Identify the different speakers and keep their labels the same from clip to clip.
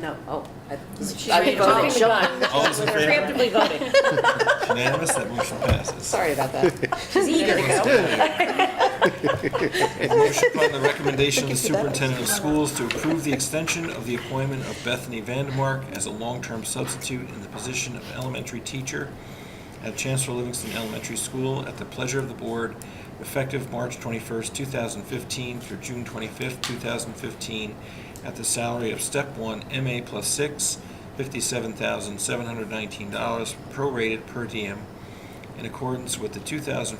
Speaker 1: No, oh. I-
Speaker 2: She's
Speaker 1: I think
Speaker 2: voting.
Speaker 1: she's voting.
Speaker 3: All those in
Speaker 1: We're
Speaker 3: favor?
Speaker 1: Preemptively voting.
Speaker 3: Unanimous, that motion passes.
Speaker 1: Sorry about that.
Speaker 2: She's eager to go.
Speaker 3: Motion upon the recommendation of the superintendent of schools to approve the extension of the appointment of Bethany Vandemark as a long-term substitute in the position of elementary teacher at Chancellor Livingston Elementary School at the pleasure of the board, effective March 21st, 2015 through June 25th, 2015, at the salary of step one MA plus six, $57,719, prorated per diem, in accordance with the 2014-15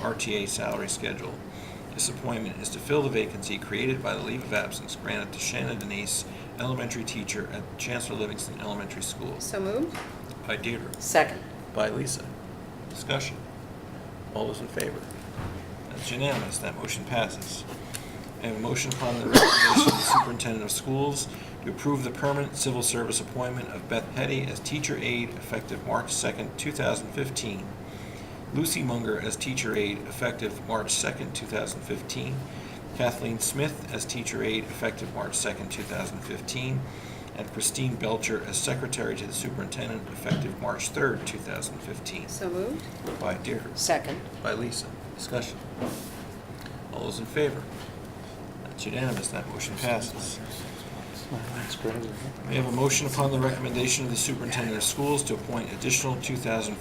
Speaker 3: RTA salary schedule. This appointment is to fill the vacancy created by the leave of absence granted to Shannon Denise, elementary teacher at Chancellor Livingston Elementary School.
Speaker 4: So moved?
Speaker 3: By Deirdre.
Speaker 1: Second.
Speaker 3: By Lisa. Discussion. All those in favor? That's unanimous, that motion passes. I have a motion upon the recommendation of the superintendent of schools to approve the permanent civil service appointment of Beth Petty as teacher aide effective March 2nd, 2015. Lucy Munger as teacher aide effective March 2nd, 2015. Kathleen Smith as teacher aide effective March 2nd, 2015. And Christine Belcher as secretary to the superintendent effective March 3rd, 2015.
Speaker 4: So moved?
Speaker 3: By Deirdre.
Speaker 1: Second.
Speaker 3: By Lisa. Discussion. All those in favor? That's unanimous. That motion passes.
Speaker 5: That's crazy.
Speaker 3: We have a motion upon the recommendation of the superintendent of schools to appoint additional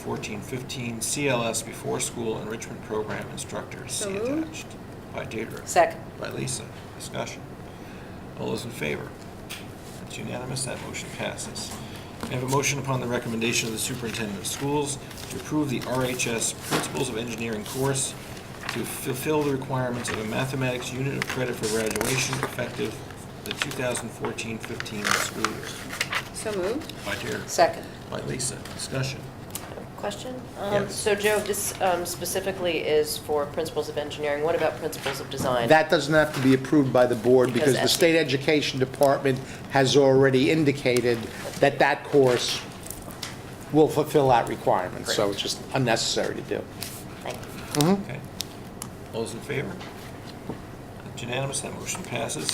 Speaker 3: 2014-15 CLS before-school enrichment program instructors.
Speaker 4: So
Speaker 3: See
Speaker 4: moved.
Speaker 3: attached. By Deirdre.
Speaker 1: Second.
Speaker 3: By Lisa. Discussion. All those in favor? That's unanimous. That motion passes. May I have a motion upon the recommendation of the superintendent of schools to approve the RHS Principles of Engineering course to fulfill the requirements of a mathematics unit of credit for graduation effective the 2014-15 school year.
Speaker 4: So moved?
Speaker 3: By Deirdre.
Speaker 1: Second.
Speaker 3: By Lisa. Discussion.
Speaker 2: Question? Um,
Speaker 3: Yes.
Speaker 2: So Joe, this um, specifically is for principles of engineering. What about principles of design?
Speaker 5: That doesn't have to be approved by the board
Speaker 2: Because
Speaker 5: because the
Speaker 2: that's-
Speaker 5: state education department has already indicated that that course will fulfill that requirement, so it's just unnecessary to do.
Speaker 2: Thank you.
Speaker 3: Okay. All those in favor? That's unanimous. That motion passes.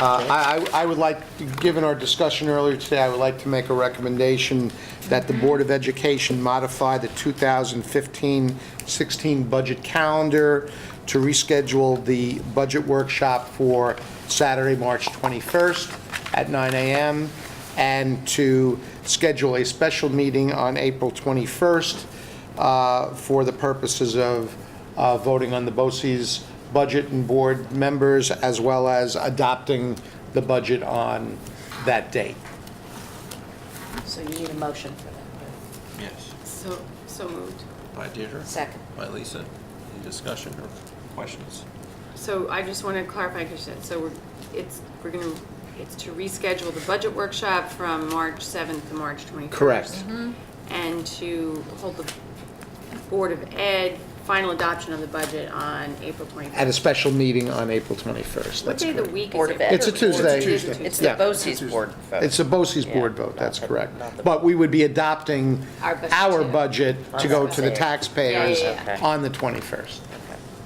Speaker 5: Uh, I I- I would like, given our discussion earlier today, I would like to make a recommendation that the Board of Education modify the 2015-16 budget calendar to reschedule the budget workshop for Saturday, March 21st at 9 a.m., and to schedule a special meeting on April 21st uh, for the purposes of uh, voting on the BOCES budget and board members, as well as adopting the budget on that date.
Speaker 1: So you need a motion for that.
Speaker 3: Yes.
Speaker 4: So, so moved.
Speaker 3: By Deirdre?
Speaker 1: Second.
Speaker 3: By Lisa. Any discussion or questions?
Speaker 4: So I just want to clarify, Kristen, so we're, it's, we're going to, it's to reschedule the budget workshop from March 7th to March 21st. And to hold the Board of Ed final adoption of the budget on April 21st.
Speaker 5: At a special meeting on April 21st.
Speaker 4: What
Speaker 5: That's
Speaker 4: day of the
Speaker 5: correct.
Speaker 4: week is it?
Speaker 2: Board of Ed.
Speaker 5: It's a Tuesday.
Speaker 4: It is a Tuesday.
Speaker 2: It's the
Speaker 5: Yeah.
Speaker 2: BOCES board vote.
Speaker 5: It's a BOCES board
Speaker 2: Yeah.
Speaker 5: vote, that's
Speaker 2: Not the-
Speaker 5: correct.
Speaker 2: not the-
Speaker 5: But we would be adopting
Speaker 4: Our budget.
Speaker 5: our budget to go to the taxpayers
Speaker 4: Yeah, yeah,
Speaker 2: yeah.
Speaker 5: on the 21st.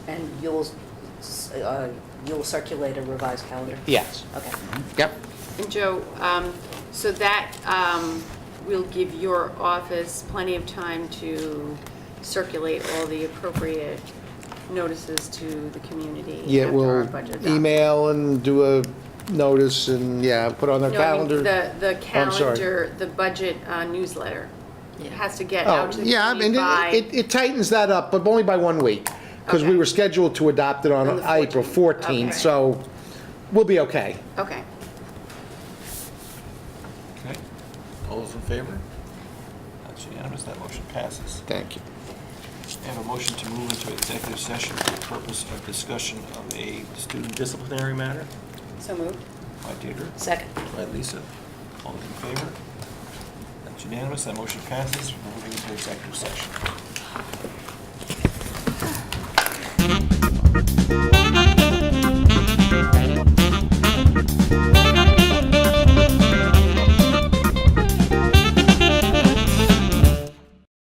Speaker 1: And you'll, uh, you'll circulate a revised calendar?
Speaker 5: Yes.
Speaker 1: Okay.
Speaker 5: Yep.
Speaker 4: And Joe, um, so that um, will give your office plenty of time to circulate all the appropriate notices to the community
Speaker 5: Yeah,
Speaker 4: after our
Speaker 5: we'll
Speaker 4: budget adoption.
Speaker 5: email and do a notice and, yeah, put on their
Speaker 4: No, I mean,
Speaker 5: calendar.
Speaker 4: the, the
Speaker 5: I'm sorry.
Speaker 4: calendar, the budget uh, newsletter has to get
Speaker 5: Oh,
Speaker 4: out to the
Speaker 5: yeah, I mean,
Speaker 4: community
Speaker 5: it-
Speaker 4: by,
Speaker 5: it it tightens that up, but only by one week, because we
Speaker 4: Okay.
Speaker 5: were scheduled to adopt it
Speaker 4: On
Speaker 5: on
Speaker 4: the
Speaker 5: April
Speaker 4: 14th,
Speaker 5: 14th,
Speaker 4: okay.
Speaker 5: so we'll be okay.
Speaker 4: okay.
Speaker 3: Okay. All those in favor? That's unanimous. That motion passes.
Speaker 5: Thank you.
Speaker 3: I have a motion to move into executive session for the purpose of discussion of a student disciplinary matter.
Speaker 4: So moved.
Speaker 3: By Deirdre.
Speaker 1: Second.
Speaker 3: By Lisa. All those in favor? That's unanimous. That motion passes. We're moving into executive session.